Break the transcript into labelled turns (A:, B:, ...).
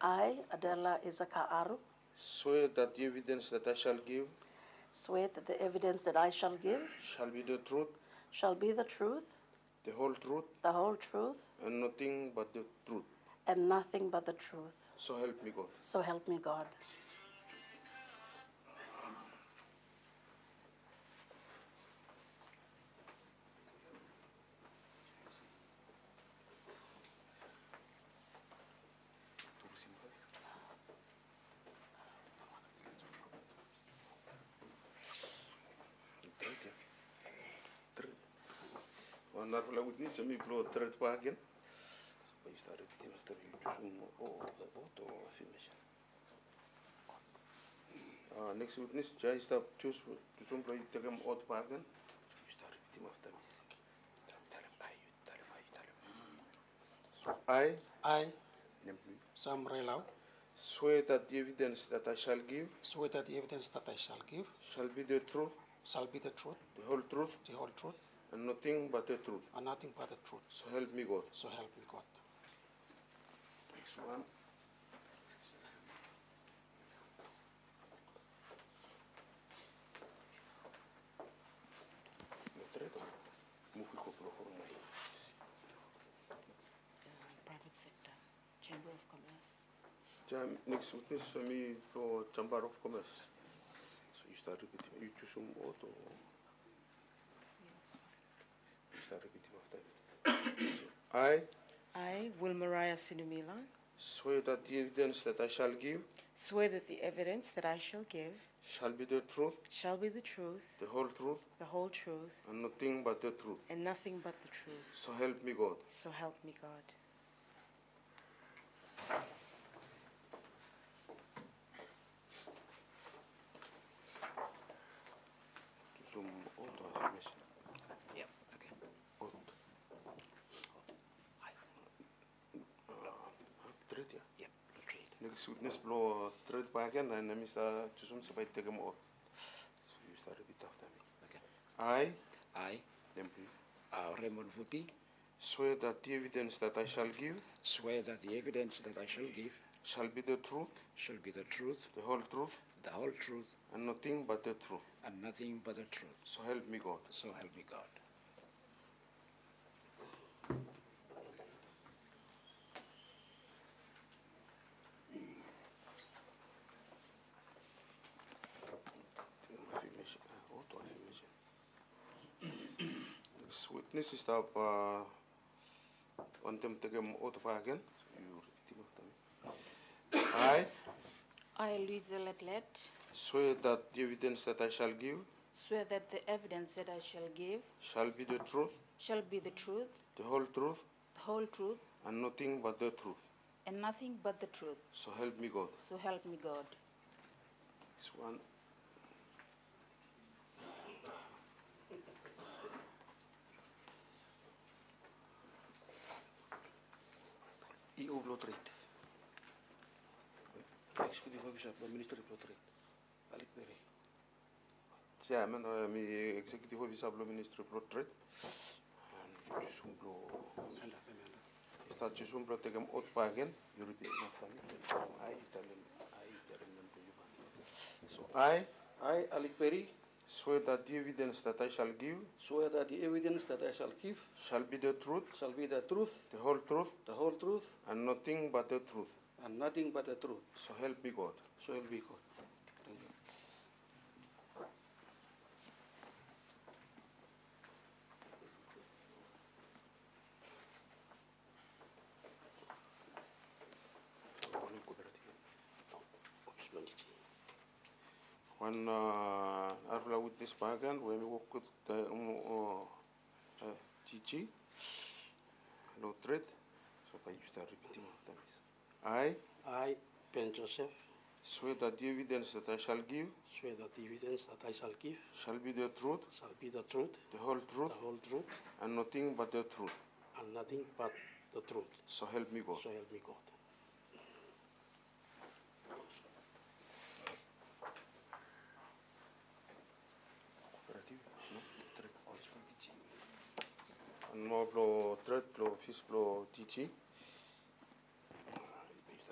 A: I, Adela Isaka Aru,
B: swear that the evidence that I shall give
A: swear that the evidence that I shall give
B: shall be the truth,
A: shall be the truth,
B: the whole truth,
A: the whole truth,
B: and nothing but the truth.
A: and nothing but the truth.
B: So help me God.
A: So help me God.
B: Drink it. Drink. Honorable witness, let me blow a third wagon. So you started to after you just one more. Oh, the auto finish. Uh, next witness, Jai stop choose to some play take him out wagon. You started with him after me. Tell him, I, you tell him, I, you tell him.
C: I,
B: I,
C: Sam Relau,
B: Swear that the evidence that I shall give
C: swear that the evidence that I shall give
B: shall be the truth,
C: shall be the truth,
B: the whole truth,
C: the whole truth,
B: and nothing but the truth.
C: and nothing but the truth.
B: So help me God.
C: So help me God.
B: Next one. No treta. Move with Kopro for me.
A: Private sector, Chamber of Commerce.
B: Jam, next witness for me for Chamber of Commerce. So you start repeating. You choose some auto. You start repeating after me. So, I
D: I, Wilmaria Sinumila,
B: swear that the evidence that I shall give
D: swear that the evidence that I shall give
B: shall be the truth,
D: shall be the truth,
B: the whole truth,
D: the whole truth,
B: and nothing but the truth.
D: and nothing but the truth.
B: So help me God.
D: So help me God.
B: To some auto affirmation.
E: Yeah, okay.
B: Auto.
E: I,
B: Trade, yeah.
E: yeah, retreat.
B: uh, Next witness blow uh, trade back and then Mr. Chusum Sabai take him out. So you start repeat after me.
E: Okay.
B: I,
E: I,
B: then please,
E: uh, Raymond Vuti,
B: swear that the evidence that I shall give
E: swear that the evidence that I shall give
B: shall be the truth,
E: shall be the truth,
B: the whole truth,
E: the whole truth,
B: and nothing but the truth.
E: and nothing but the truth.
B: So help me God.
E: So help me God.
B: Affirmation. uh, Auto affirmation. Next witness is up uh, on them take him out back again. So you repeat him after me. I
F: I, Louise Letlet,
B: swear that the evidence that I shall give
F: swear that the evidence that I shall give
B: shall be the truth,
F: shall be the truth,
B: the whole truth,
F: the whole truth,
B: and nothing but the truth.
F: and nothing but the truth.
B: So help me God.
F: So help me God.
B: This one. EU blow trade. Executive Officer, the Ministry blow trade. Balik dari. Chairman, uh, mi Executive Officer blow Ministry blow trade. And Jusum blow.
C: Anda, Pemenda.
B: Um, Está Jusum blow take him out again. You repeat after me. I tell him, I tell him to you. So I
C: I, Alec Perry,
B: swear that the evidence that I shall give
C: swear that the evidence that I shall give
B: shall be the truth,
C: shall be the truth,
B: the whole truth,
C: the whole truth,
B: and nothing but the truth.
C: and nothing but the truth.
B: So help me God.
C: So help me God. Thank you.
B: When uh, Arla with this bargain, when we work with the um, uh, uh, Gigi, no threat. So I used to repeating after me. I
C: I, Ben Joseph,
B: swear that the evidence that I shall give
C: swear that the evidence that I shall give
B: shall be the truth,
C: shall be the truth,
B: the whole
C: the
B: truth,
C: whole truth,
B: and nothing but the truth.
C: and nothing but the truth.
B: So help me God.
C: So help me God.
B: And more blow threat, blow fish, blow Gigi.